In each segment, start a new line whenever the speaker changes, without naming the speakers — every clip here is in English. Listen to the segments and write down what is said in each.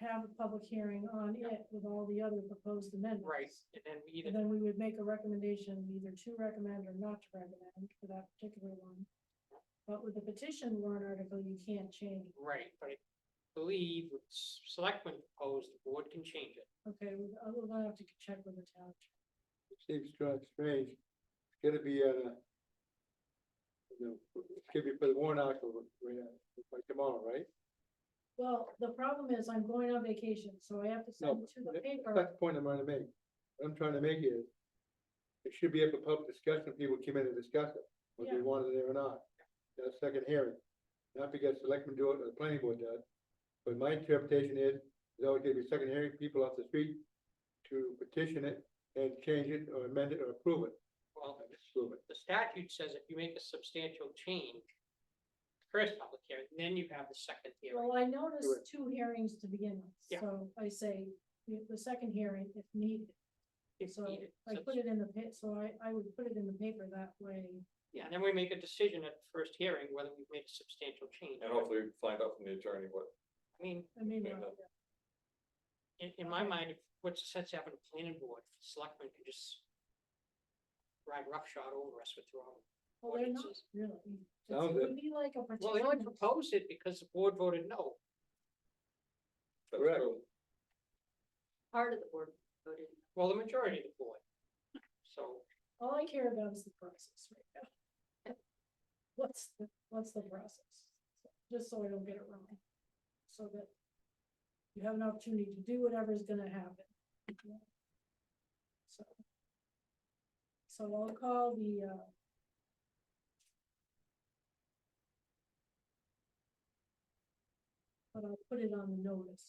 have a public hearing on it with all the other proposed amendments.
Right, and then we
And
either,
then we would make a recommendation either to recommend or not to recommend for that particular one. But with the petition warrant article, you can't change. it.
right, but I believe what s- selectmen proposed, the board can change it.
Okay, we- I will have to check with the town.
Seems kind of strange. It's gonna be at a. You know, it's gonna be for the warrant article, right, uh, by tomorrow, right?
Well, the problem is I'm going on vacation, so I have to send
No,
it to the
that-
paper.
That's the point I'm trying to make. What I'm trying to make is. It should be up for public discussion, people came in and discuss it, whether they
Yeah.
wanted it or not. That's second hearing. Not because selectmen do it or the planning board does. But my interpretation is, there's always gonna be a second hearing, people off the street to petition it and change it or amend it or approve it.
Well,
Not Disapprove it.
the statute says if you make a substantial change, first public hearing, then you have the second hearing.
Well, I noticed two hearings to begin with,
Yeah.
so I say the the second hearing if needed.
if
So
needed.
I
So-
put it in the pit, so I, I would put it in the paper that way.
Yeah, and then we make a decision at the first hearing whether we've made a substantial change.
And hopefully we find out from the attorney what,
I mean,
I mean,
Yeah.
uh,
in, in my mind, if- what's the sense of having a planning board, if selectmen can just ride roughshod over us with their own
well, they're not
ordinances?
really.
Sounds
It would be like a
Well, they only
petition.
proposed it because the board voted no.
that's
Correct.
true.
part of the board voted.
Well, the majority of the board. So,
All I care about is the process right now. What's, the what's the process? Just so I don't get it wrong. So that you have an opportunity to do whatever's gonna happen. So. So I'll call the, uh, but I'll put it on the notice.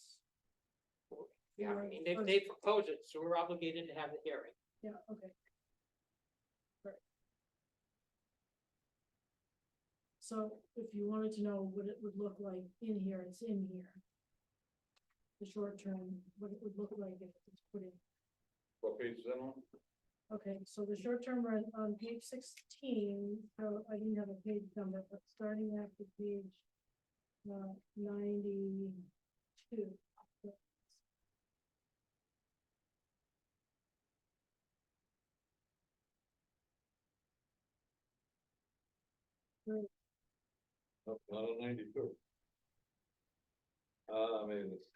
yeah, I mean, they,
Right.
they proposed it, so we're obligated to have the hearing.
Yeah, okay. Right. So if you wanted to know what it would look like in here, it's in here. The short term, what it would look like if it's put in.
What page is that on?
Okay, so the short term rent on page sixteen, so I didn't have a page number, but starting after page uh, ninety-two.
No, Not on ninety-two. Uh, I mean, it's.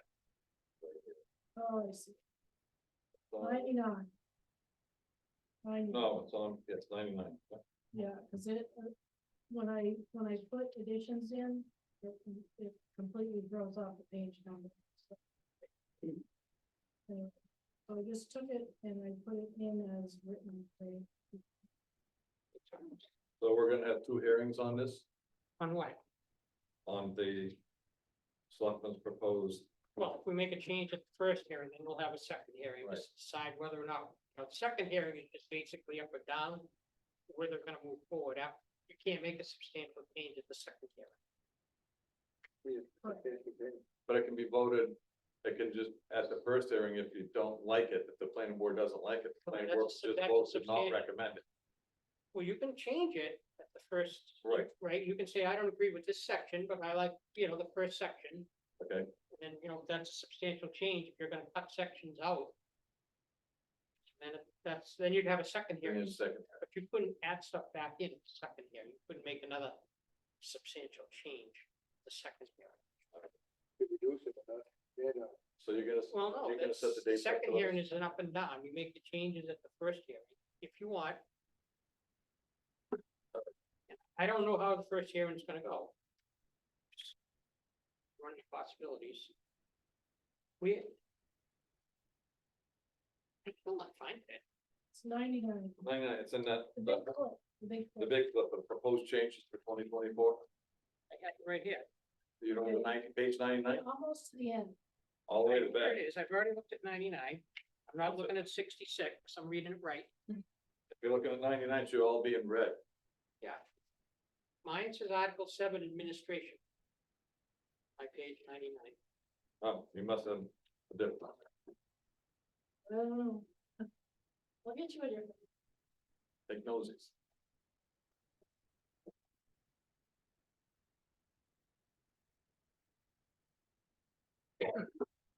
Oh, I see,
it's on-
ninety-nine. Ninety-nine.
No, it's on, yeah, it's ninety-nine.
Yeah, cause it, uh, when I, when I put additions in, it, it completely throws off the page number. so. Anyway, So I just took it and I put it in as written, so
So we're gonna have two hearings on this,
On what?
on the selectmen's proposed,
Well, if we make a change at the first hearing, then we'll have a second hearing,
Right.
just decide whether or not, you know, the second hearing is just basically up or down. Where they're gonna move forward after, you can't make a substantial change at the second hearing.
Yeah,
Correct.
okay, okay.
but it can be voted. It can just, at the first hearing, if you don't like it, if the planning board doesn't like it, the
Well,
planning
that's
board
a sub-
just
that's a
votes to not
substantial-
recommend it.
Well, you can change it at the first.
Right.
Right, you can say, I don't agree with this section, but I like, you know, the first section,
Okay,
and then, you know, that's a substantial change, if you're gonna cut sections out. Then if that's, then you'd have a second
give me
hearing,
a second.
but you couldn't add stuff back in at the second hearing, you couldn't make another substantial change the second hearing.
to reduce it, but not, yeah, no.
So you're gonna,
Well, no,
you're gonna
that's,
set the
the
date. for
second
those.
hearing is an up and down, you make the changes at the first hearing, if you want. I don't know how the first hearing's gonna go. Running possibilities. We. I still not find it,
it's ninety-nine.
No, no, it's in that,
The
the,
big clip, the big
the
clip.
big, the the proposed changes for twenty twenty-four,
I got it right here.
you know, the ninety, page ninety-nine,
Almost to the end.
all the way to the
There
back.
it is, I've already looked at ninety-nine, I'm not looking at sixty-six, I'm reading it right,
If you're looking at ninety-nine, should all be in red.
yeah. Mine says Article seven Administration. My page ninety-nine.
Oh, you must have a different. one.
I don't know. Look at you at your,
Take noses.